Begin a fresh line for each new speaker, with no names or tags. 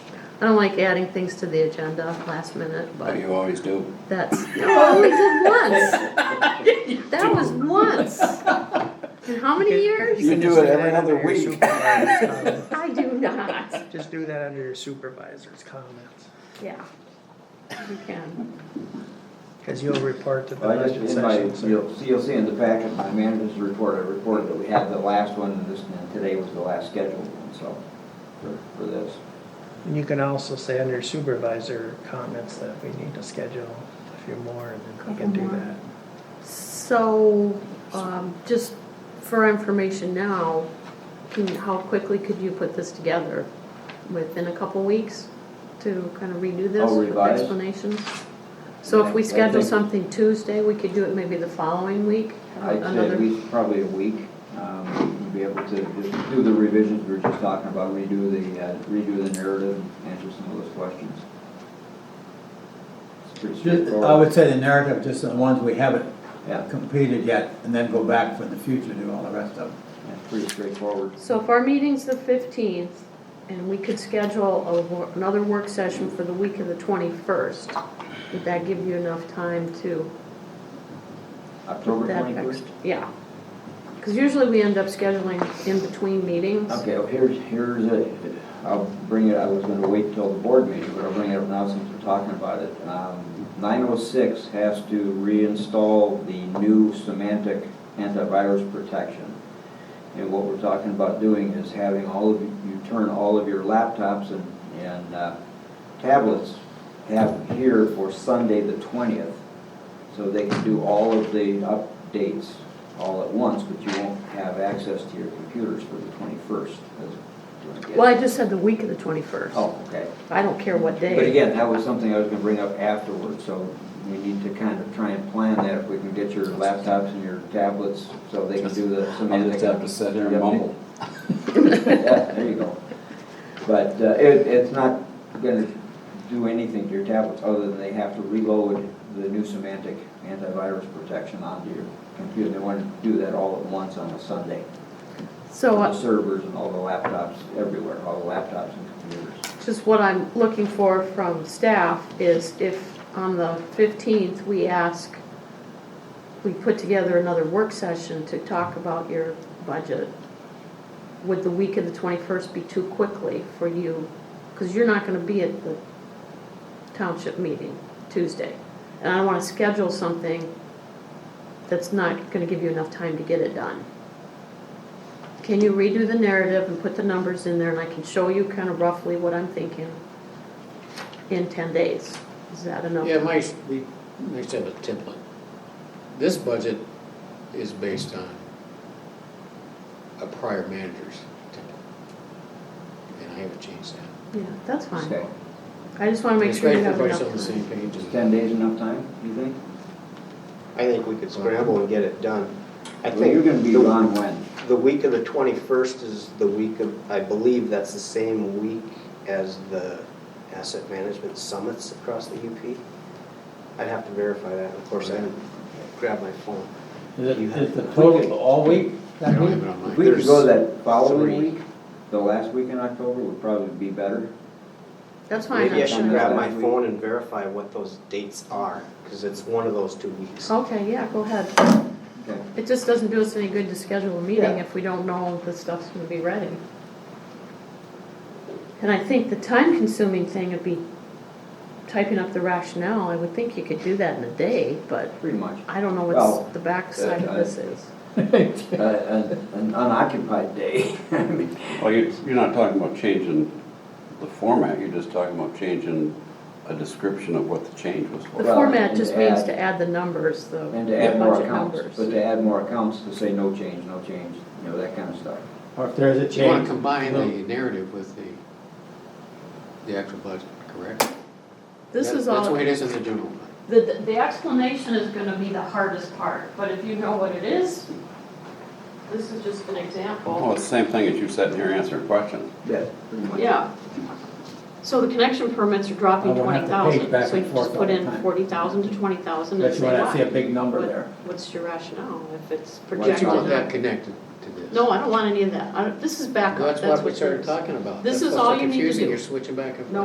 I don't like adding things to the agenda last minute,
But
but
you always do.
that's, no, we did once. That was once. In how many years?
You do
just
it every
that under
other
your
week.
supervisor's comment.
I do not.
Just do that under your supervisor's comments,
Yeah. You can.
because you'll report to the
Well, I just,
budget
in my,
session. so-
you'll, see- you'll see in the packet, my manager's report, I reported that we had the last one, and this, and today was the last scheduled one, so, for, for this.
And you can also say under supervisor comments that we need to schedule a few more, and then we can do
Couple more.
that.
So, um, just for information now, can, how quickly could you put this together? Within a couple weeks to kind of redo this
I'll
with
revise.
explanations? So if we
Yeah, I
schedule
think-
something Tuesday, we could do it maybe the following week?
I'd say
another-
at least probably a week, um, we'll be able to just do the revisions we were just talking about, redo the, uh, redo the narrative, answer some of those questions. It's pretty
Just- I
straightforward.
would say the narrative, just the ones we haven't
Yeah,
completed yet, and then go back for the future, do all the rest of them.
yeah, pretty straightforward.
So if our meeting's the fifteenth, and we could schedule a, wor- another work session for the week of the twenty-first, would that give you enough time to?
October
that
twenty-first?
ex- Yeah. Because usually we end up scheduling in between meetings.
Okay, well, here's, here's a, I'll bring it, I was gonna wait till the board meeting, but I'll bring it up now since we're talking about it. Nine oh six has to reinstall the new semantic antivirus protection. And what we're talking about doing is having all of, you you turn all of your laptops and, and uh, tablets have here for Sunday the twentieth. So they can do all of the updates all at once, but you won't have access to your computers for the twenty-first.
Well, I just said the week of the twenty-first.
Oh, okay.
I don't care what day.
But again, that was something I was gonna bring up afterwards, so we need to kind of try and plan that if we can get your laptops and your tablets so they can do the
I'll
semantic.
just have to sit here and
Yep.
mumble.
Yeah, there you go. But uh, it, it's not gonna do anything to your tablets, other than they have to reload the new semantic antivirus protection onto your computer. They wanna do that all at once on a Sunday.
So
The
uh,
servers and all the laptops everywhere, all the laptops and computers.
just what I'm looking for from staff is if on the fifteenth, we ask, we put together another work session to talk about your budget, would the week of the twenty-first be too quickly for you? Because you're not gonna be at the township meeting Tuesday. And I don't wanna schedule something that's not gonna give you enough time to get it done. Can you redo the narrative and put the numbers in there, and I can show you kind of roughly what I'm thinking in ten days? Is that enough?
Yeah, nice, we, nice to have a template. This budget is based on a prior manager's template. And I haven't changed that.
Yeah, that's fine.
Okay,
I just wanna make
It's
sure
great
you
if
have enough
everybody's on the
time.
same page.
is ten days enough time, you think?
I think we could scramble and get it done. I
Well, you're
think
gonna be
the-
gone when?
the week of the 21st is the week of, I believe that's the same week as the asset management summits across the UP. I'd have to verify that, of course, I didn't grab my phone.
Is
You
it,
have-
is the total all week?
I
that
don't
week?
have it on
If
mine.
we could go that
three.
following week, the last week in October would probably be better.
That's fine.
Maybe I
I'm
should
sure.
grab my phone and verify what those dates are, because it's one of those two weeks.
Okay, yeah, go ahead.
Okay.
It just doesn't do us any good to schedule a meeting
Yeah.
if we don't know the stuff's gonna be ready. And I think the time-consuming thing would be typing up the rationale. I would think you could do that in a day, but
Pretty much.
I don't know
Well,
what's the backside of
uh,
this is.
Uh, An an unoccupied day. I mean,
Well, you, you're not talking about changing the format, you're just talking about changing a description of what the change was
The
for.
well,
format
and
just
to
means
add-
to add the numbers, the
And to add more
budget
accounts, but
numbers.
to add more accounts to say no change, no change, you know, that kind of stuff.
Or if there's a change.
You wanna combine
we'll-
the narrative with the, the actual budget, correct?
This
That-
is
That's the
all,
way it
the,
is in the general plan.
the explanation is gonna be the hardest part, but if you know what it is, this is just an example.
Well, it's the same thing as you sitting here answering questions.
Yeah. Pretty much.
Yeah. So the connection permits are dropping
I won't have to
twenty thousand,
page back
so you
and forth
just put
all the
in
time.
forty thousand to twenty thousand and
But you
say
wanna see a
why?
big number
What-
there.
What's your rationale if it's
But
projected?
you want that
out?
connected to this.
No, I don't want any of that. I don't- This is backup.
That's what we
it
started
is.
talking about.
This
That's
is
what's so
all you need to
confusing.
do.
You're switching back and forth.
No,